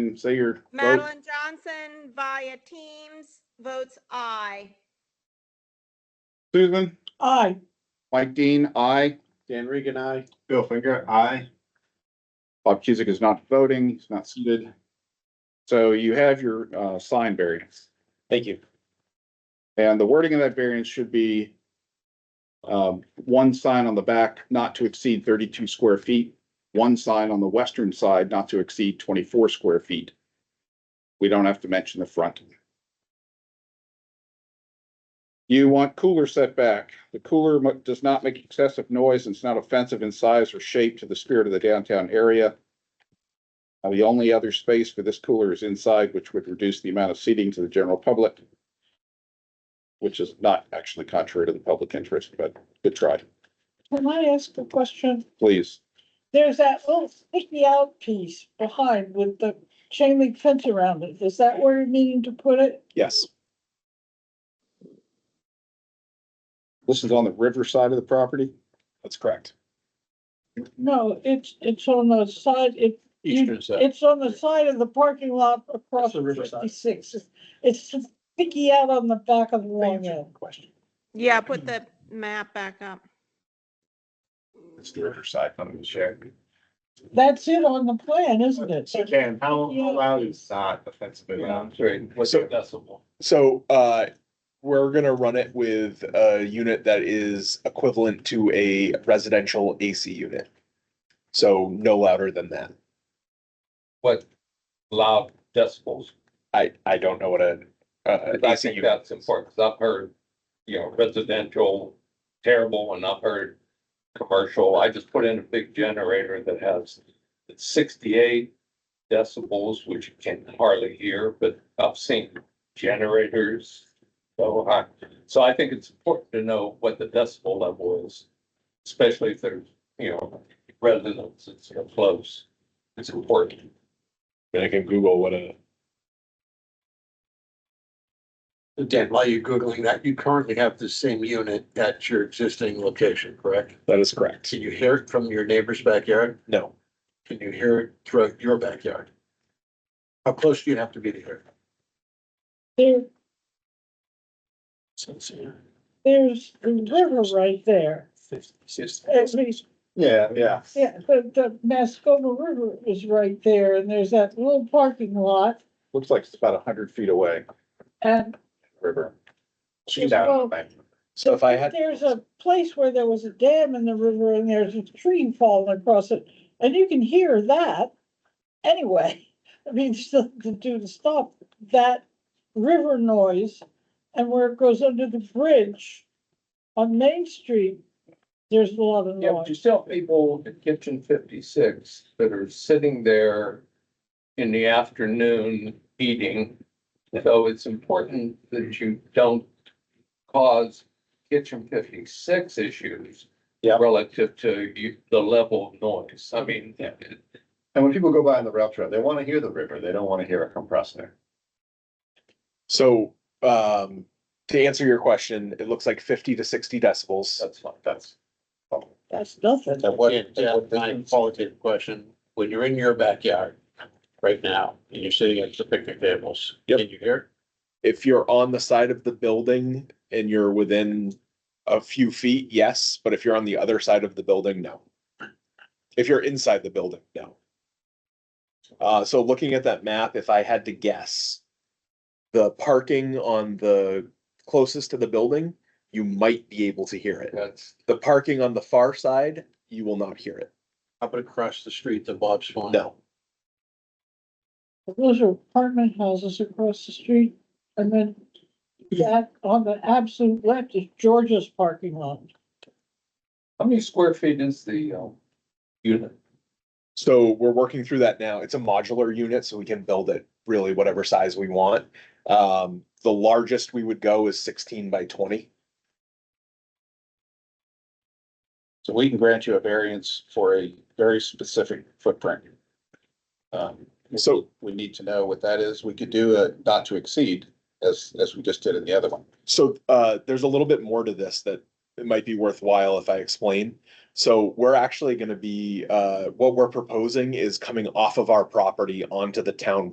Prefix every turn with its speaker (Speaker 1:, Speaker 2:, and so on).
Speaker 1: and say your vote.
Speaker 2: Madeline Johnson via Teams votes aye.
Speaker 1: Susan,
Speaker 3: Aye.
Speaker 1: Mike Dean, aye.
Speaker 4: Dan Regan, I.
Speaker 5: Bill Finger, aye.
Speaker 1: Bob Cusick is not voting, he's not seated. So you have your uh, sign variance,
Speaker 4: Thank you.
Speaker 1: and the wording of that variance should be um, one sign on the back not to exceed thirty-two square feet, one sign on the western side not to exceed twenty-four square feet. We don't have to mention the front. You want cooler setback. The cooler mu- does not make excessive noise and it's not offensive in size or shape to the spirit of the downtown area. Uh, The only other space for this cooler is inside, which would reduce the amount of seating to the general public, which is not actually contrary to the public interest, but good try,
Speaker 3: Can I ask a question?
Speaker 1: please.
Speaker 3: There's that oh, little sticky out piece behind with the chain link fence around it. Is that where you're needing to put it?
Speaker 1: Yes. This is on the river side of the property? That's correct.
Speaker 3: No, it's, it's on the side, it,
Speaker 4: Eastern
Speaker 1: uh,
Speaker 4: side.
Speaker 3: it's on the side of the parking lot across
Speaker 4: That's the riverside.
Speaker 3: fifty-six. It's sticky out on the back of the long end.
Speaker 4: Question.
Speaker 2: Yeah, put the map back up.
Speaker 1: It's the river side, I'm gonna share.
Speaker 3: That's it on the plan, isn't it?
Speaker 5: So Dan, how how loud is that offensive?
Speaker 4: What's
Speaker 6: So-
Speaker 4: your decibel?
Speaker 6: So uh, we're gonna run it with a unit that is equivalent to a residential AC unit. So no louder than that.
Speaker 7: what loud decibels.
Speaker 6: I, I don't know what a, uh,
Speaker 7: I
Speaker 6: AC
Speaker 7: think
Speaker 6: unit.
Speaker 7: that's important, because I've heard, you know, residential terrible, and I've heard commercial. I just put in a big generator that has sixty-eight decibels, which you can hardly hear, but I've seen generators so high. So I think it's important to know what the decibel level is, especially if there's, you know, residences are close. It's important.
Speaker 6: I can Google what a.
Speaker 4: Dan, while you're Googling that, you currently have the same unit at your existing location, correct?
Speaker 6: That is correct.
Speaker 4: Can you hear it from your neighbor's backyard?
Speaker 6: No.
Speaker 4: Can you hear it throughout your backyard? How close do you have to be to hear?
Speaker 3: There,
Speaker 4: it?
Speaker 3: there's the river right there. At least
Speaker 5: Yeah, yeah.
Speaker 3: Yeah, the, the Mascoma River is right there and there's that little parking lot
Speaker 1: Looks like it's about a hundred feet away,
Speaker 3: and
Speaker 1: river.
Speaker 3: She's out.
Speaker 6: So if I had,
Speaker 3: there's a place where there was a dam in the river and there's a tree falling across it. And you can hear that anyway. I mean, still to do to stop that river noise and where it goes under the bridge on Main Street, there's a lot of
Speaker 7: Yeah, but you
Speaker 3: noise.
Speaker 7: still have people at Kitchen Fifty-Six that are sitting there in the afternoon eating. So it's important that you don't cause Kitchen Fifty-Six issues
Speaker 4: Yeah.
Speaker 7: relative to you- the level of noise. I mean,
Speaker 5: And when people go by on the rail trail, they want to hear the river. They don't want to hear a compressor.
Speaker 6: so, um, to answer your question, it looks like fifty to sixty decibels.
Speaker 7: that's fine.
Speaker 5: That's.
Speaker 3: That's nothing.
Speaker 4: And what, Dan, my qualitative question, when you're in your backyard right now, and you're sitting at the picnic tables,
Speaker 6: Yep.
Speaker 4: can you hear? it?
Speaker 6: if you're on the side of the building and you're within a few feet, yes, but if you're on the other side of the building, no. If you're inside the building, no. Uh, so looking at that map, if I had to guess, the parking on the closest to the building, you might be able to hear it.
Speaker 7: That's,
Speaker 6: The parking on the far side, you will not hear it.
Speaker 4: How about across the street to Bob's Farm?
Speaker 6: No.
Speaker 3: Those are apartment houses across the street, and then that on the absolute left is Georgia's parking lot.
Speaker 7: how many square feet is the, um, unit?
Speaker 6: So we're working through that now. It's a modular unit, so we can build it really whatever size we want. Um, the largest we would go is sixteen by twenty.
Speaker 1: So we can grant you a variance for a very specific footprint. Um,
Speaker 6: So-
Speaker 1: We need to know what that is. We could do a not to exceed as, as we just did in the other one.
Speaker 6: So uh, there's a little bit more to this that it might be worthwhile if I explain. So we're actually gonna be, uh, what we're proposing is coming off of our property onto the town